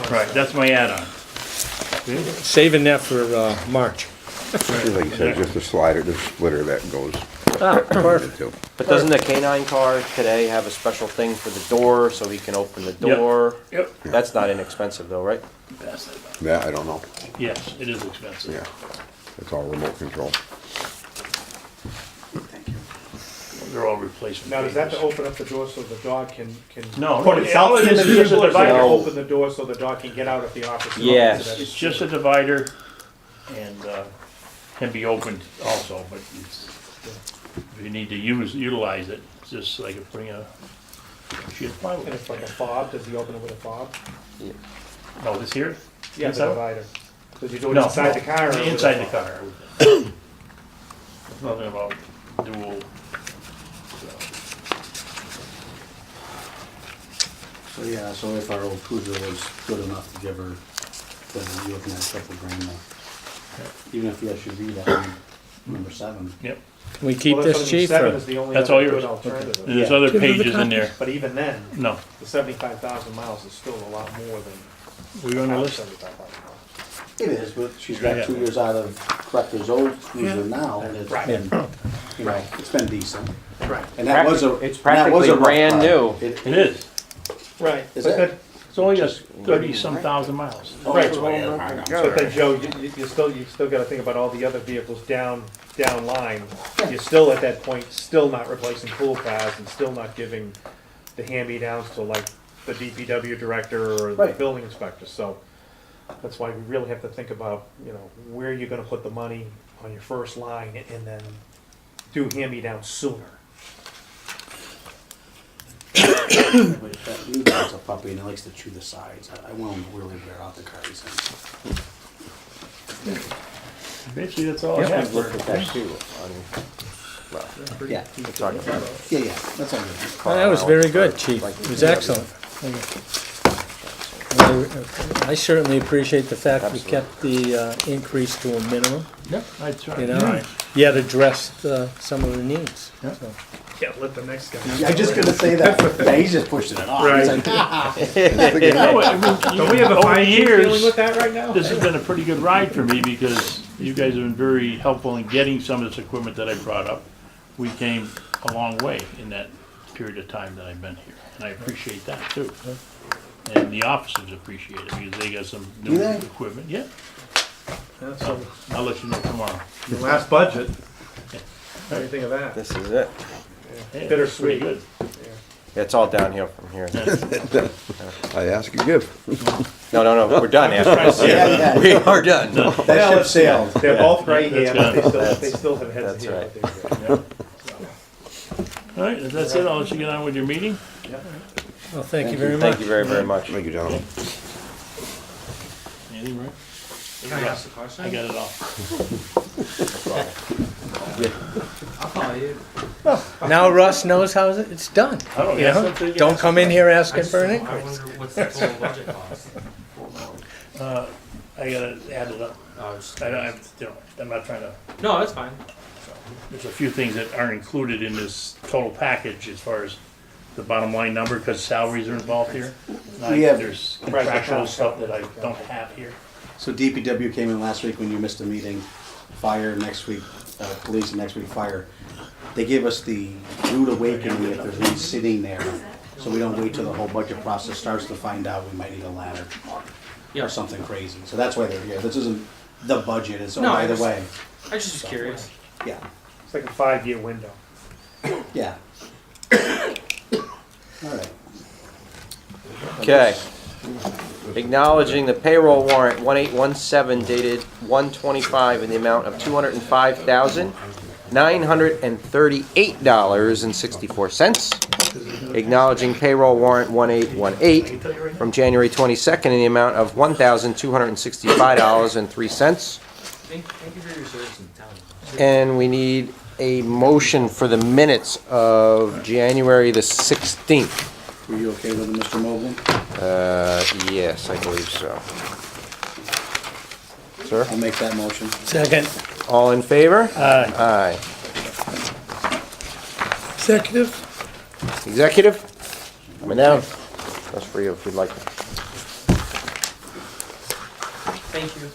Right, that's my add-on. Saving that for uh, March. Like you said, just a slider, the splitter that goes into. But doesn't the canine car today have a special thing for the door so he can open the Yep. door? Yep. That's not inexpensive though, right? That, I don't know, Yes, it is expensive. yeah. It's all remote control. They're all replacement. Now, does that to pieces. open up the door so the dog can, can No, put it- itself all it in the is is just a keyboard and divider. open the door so the dog can get out of the office? and open Yes. to It's that- just a divider and uh, can be opened also, but it's- if you need to use, utilize it, it's just like putting a sheet of And plywood. it's like a fob, does he open it with a fob? No, this here? Yeah, the Inside? divider. Does he do it No, inside the car? or with a Inside the fob? car. I would think. There's Nothing about dual. so. So, yeah, so if our old cruiser was good enough to give her, then you're looking at a couple grand more. Even if the SUV, that one, number seven, Yep, We keep Well, that's what this I mean, cheap Seven for, is the only That's other all good yours. alternative. And there's Yeah. other pages in there. But even then, No, the seventy-five thousand miles is still a lot more than. we're on the our list. 75,000 miles. it is, but she's Yeah. got two years out of Rutgers old cruiser now, and it's Right. been, you know, it's been decent. Right, And that was a, It's and that was practically a rough brand ride. new. It- It is. right. Is But it? then- It's only just thirty-some thousand miles. oh, Right. it's way out of line, I'm But sorry. then, Joe, you, you- you still, you still gotta think about all the other vehicles down, down line. You're still at that point, still not replacing pool cars and still not giving the hand-me-downs to like the DPW director or the Right. building inspector, so. That's why we really have to think about, you know, where you're gonna put the money on your first line and then do hand-me-downs sooner. But that new dog's a puppy and it likes to chew the sides. I- I want him to really wear out the car, he's in. Basically, Oh, that's all I have. I've looked at that too. I mean, Yeah, we're talking about yeah, yeah, that's all good. Well, That was very good, chief. It was excellent. I- I certainly appreciate the fact we kept the uh, increase to a minimum, Yep, that's right. you Right. know, yet addressed uh, some of the needs. Yeah. so. Yeah, let the next guy. Yeah, I'm just gonna say that. Yeah, he's just pushing it off. He's Right. like, "Ah." No, I mean, Don't we have over a the fine chief dealing years, with that right now? this has been a pretty good ride for me because you guys have been very helpful in getting some of this equipment that I brought up. We came a long way in that period of time that I've been here, and I appreciate that too. And the officers appreciate it because they got some Do new they? equipment. Yeah, Yeah, so, I'll let you know tomorrow. your last budget, what do you think of that? This is it. Hey, Bittersweet. pretty good. It's all downhill from here. I ask you give. No, no, no, we're done after this. Yeah, yeah. We are done. That Well, ship sailed. They're both gray That's hair, but they good. still, they still have heads that's here. right. All right, if that's it, I'll let you get on with your meeting. Well, thank you very much. Thank you very, very much. Thank you, gentlemen. Anything, Rick? I ask I got it all. Now Russ knows how it's done. I don't You ask know, them to- don't come in here asking for an I increase. wonder what's the total budget cost? I gotta add it up. Oh, just- I don't, I'm, you know, I'm not trying to, No, that's fine. there's a few things that aren't included in this total package as far as the bottom line number, because salaries are involved here. And I- We have- There's contractual stuff that I don't have here. So DPW came in last week when you missed a meeting, fire next week, uh, police and next week fire. They gave us the rude awakening if there's one sitting there, so we don't wait till the whole budget process starts to find out we might need a ladder Yeah, or something crazy. So that's why they're here. This isn't the budget, it's oh, No, by the it's- way. I was just curious. Yeah, It's like a five-year window. yeah. All right. Okay. Acknowledging the payroll warrant 1817 dated 125 in the amount of $205,938.64. Acknowledging payroll warrant 1818 from January 22nd in the amount of $1,265.03. Thank, thank you for your service in town. And we need a motion for the minutes of January the 16th. Were you okay with it, Mr. Mobley? Uh, yes, I believe so. Sir? I'll make that motion. Second, All in favor? uh, Aye. executive? Executive? Coming down. That's for you if you'd like. Thank you.